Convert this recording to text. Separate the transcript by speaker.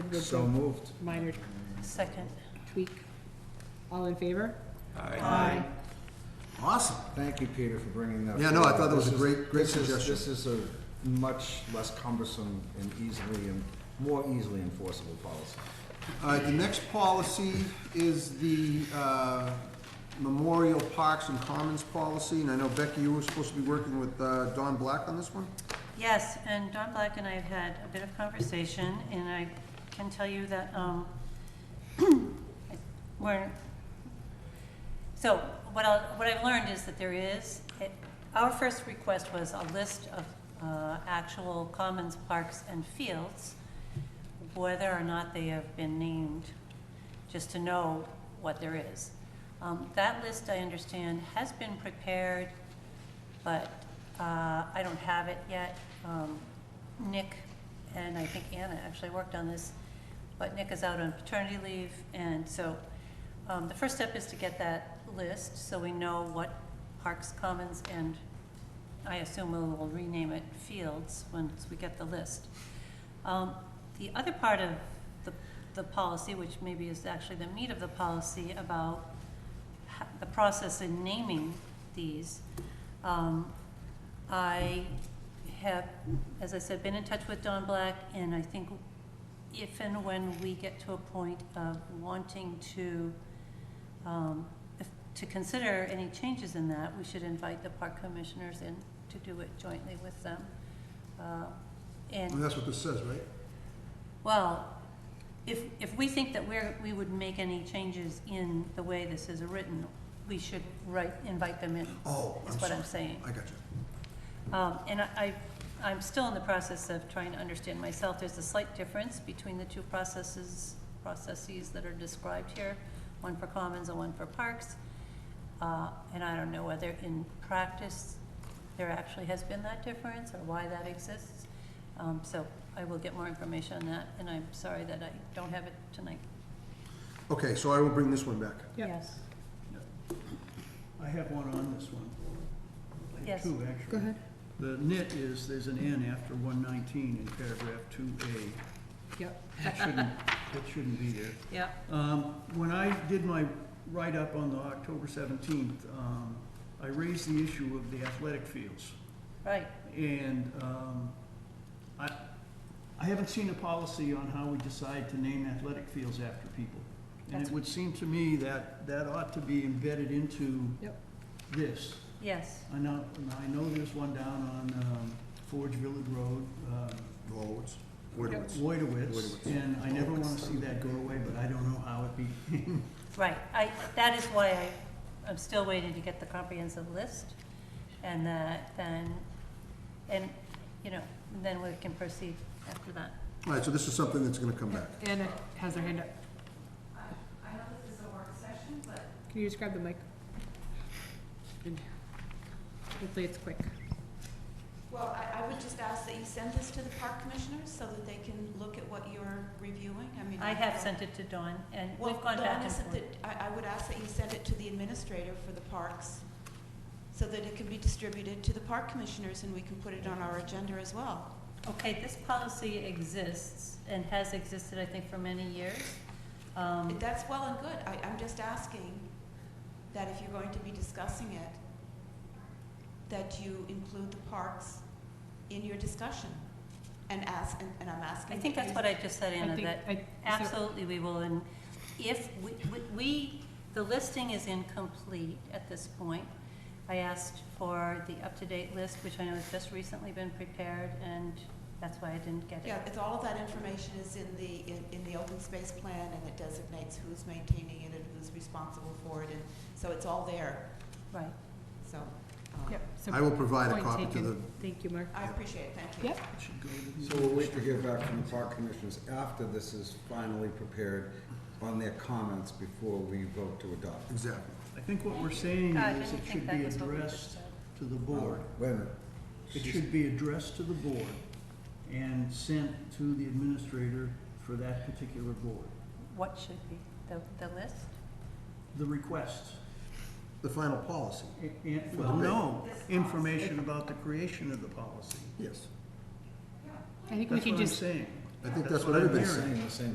Speaker 1: with
Speaker 2: So
Speaker 1: the
Speaker 2: moved.
Speaker 1: minor
Speaker 3: Second.
Speaker 1: tweak. All in favor?
Speaker 4: Aye. Awesome.
Speaker 2: Thank you, Peter, for bringing that.
Speaker 4: Yeah, no, I thought
Speaker 2: forward.
Speaker 4: that was a
Speaker 2: This is-
Speaker 4: great- great
Speaker 2: this is-
Speaker 4: suggestion.
Speaker 2: This is a much less cumbersome and easily, and more easily enforceable policy.
Speaker 4: All right, Uh, the next policy is the uh, Memorial Parks and Commons policy, and I know Becky, you were supposed to be working with uh, Don Black on this one?
Speaker 3: Yes, and Don Black and I have had a bit of conversation, and I can tell you that, um, we're, so what I, what I've learned is that there is, it- our first request was a list of, uh, actual commons, parks, and fields, whether or not they have been named, just to know what there is. Um, that list, I understand, has been prepared, but uh, I don't have it yet. Um, Nick, and I think Anna actually worked on this, but Nick is out on paternity leave, and so um, the first step is to get that list, so we know what Parks, Commons, and I assume we'll we'll rename it Fields once we get the list. Um, The other part of the, the policy, which maybe is actually the meat of the policy about ho- the process in naming these, um, I have, as I said, been in touch with Don Black, and I think if and when we get to a point of wanting to, um, if- to consider any changes in that, we should invite the park commissioners in to do it jointly with them. Uh, And
Speaker 4: And that's what this says, right?
Speaker 3: well, if, if we think that we're, we would make any changes in the way this is written, we should write, invite them in.
Speaker 4: Oh, I'm
Speaker 3: Is what I'm
Speaker 4: sorry.
Speaker 3: saying.
Speaker 4: I got you.
Speaker 3: Um, and I, I- I'm still in the process of trying to understand myself. There's a slight difference between the two processes, processes that are described here, one for commons and one for parks. Uh, and I don't know whether in practice there actually has been that difference or why that exists. Um, so I will get more information on that, and I'm sorry that I don't have it tonight.
Speaker 4: Okay, so I will bring this one back.
Speaker 1: Yep.
Speaker 3: Yes.
Speaker 5: I have one on this one. I have
Speaker 3: Yes.
Speaker 5: two, actually.
Speaker 1: Go ahead.
Speaker 5: The nit is, there's an N after one nineteen in paragraph two A.
Speaker 1: Yep.
Speaker 5: It shouldn't, it shouldn't be there.
Speaker 3: Yeah.
Speaker 5: Um, When I did my write-up on the October seventeenth, um, I raised the issue of the athletic fields.
Speaker 3: Right,
Speaker 5: And um, I, I haven't seen a policy on how we decide to name athletic fields after people. And
Speaker 3: That's-
Speaker 5: it would seem to me that that ought to be embedded into
Speaker 1: Yep.
Speaker 5: this.
Speaker 3: yes,
Speaker 5: I know, and I know there's one down on um, Forge Village Road, um,
Speaker 4: Wallowitz?
Speaker 1: Yep.
Speaker 4: Woodwitz.
Speaker 5: Loidowitz,
Speaker 4: Loidowitz.
Speaker 5: and I never want to see that go away, but I don't know how it became.
Speaker 3: right. I, that is why I, I'm still waiting to get the comprehensive list, and that, then, and, you know, then we can proceed after that.
Speaker 4: All right, so this is something that's gonna come back.
Speaker 1: Anna has her hand up. I know this is a work session, but. Can you just grab the mic? And Hopefully it's quick.
Speaker 6: Well, I, I would just ask that you send this to the park commissioners so that they can look at what you're reviewing, I mean.
Speaker 3: I have sent it to Dawn, and
Speaker 6: Well,
Speaker 3: we've gone
Speaker 6: Dawn,
Speaker 3: back and
Speaker 6: isn't
Speaker 3: forth.
Speaker 6: it- I, I would ask that you send it to the administrator for the parks, so that it can be distributed to the park commissioners and we can put it on our agenda as well.
Speaker 3: Okay, this policy exists and has existed, I think, for many years. Um,
Speaker 6: That's well and good, I, I'm just asking that if you're going to be discussing it, that you include the parks in your discussion, and ask, and, and I'm asking.
Speaker 3: I think
Speaker 6: that
Speaker 3: that's
Speaker 6: you-
Speaker 3: what I just said,
Speaker 1: I
Speaker 3: Anna,
Speaker 1: think
Speaker 3: that
Speaker 1: I- so-
Speaker 3: Absolutely, we will, and if, we- we- we, the listing is incomplete at this point. I asked for the up-to-date list, which I know has just recently been prepared, and that's why I didn't get
Speaker 6: Yeah,
Speaker 3: it.
Speaker 6: it's all of that information is in the, in, in the open space plan, and it designates who's maintaining it and who's responsible for it, and so it's all there,
Speaker 3: Right.
Speaker 6: so. um,
Speaker 1: Yep. so
Speaker 4: I will provide a
Speaker 1: point
Speaker 4: copy to
Speaker 1: taken.
Speaker 4: the,
Speaker 1: Thank you, Mark.
Speaker 6: I appreciate it, thank you.
Speaker 1: Yep.
Speaker 5: It should go to the-
Speaker 2: So we'll wait to hear back from the park commissioners after this is finally prepared on their comments before we vote to adopt.
Speaker 4: exactly.
Speaker 5: I think what we're saying
Speaker 3: Uh, I
Speaker 5: is
Speaker 3: didn't
Speaker 5: it
Speaker 3: think
Speaker 5: should
Speaker 3: that
Speaker 5: be
Speaker 3: was what we
Speaker 5: addressed
Speaker 3: just said.
Speaker 5: to the board.
Speaker 2: Wait a minute.
Speaker 5: It
Speaker 2: She's-
Speaker 5: should be addressed to the board and sent to the administrator for that particular board.
Speaker 3: What should be, the, the list?
Speaker 5: The request,
Speaker 4: The final policy,
Speaker 5: i- i- well, no, information about the creation of the policy.
Speaker 4: yes.
Speaker 1: I think we
Speaker 5: That's
Speaker 1: can
Speaker 5: what I'm
Speaker 1: just
Speaker 5: saying.
Speaker 4: I think that's what
Speaker 5: I'm
Speaker 4: everybody's
Speaker 5: hearing.
Speaker 2: Saying the same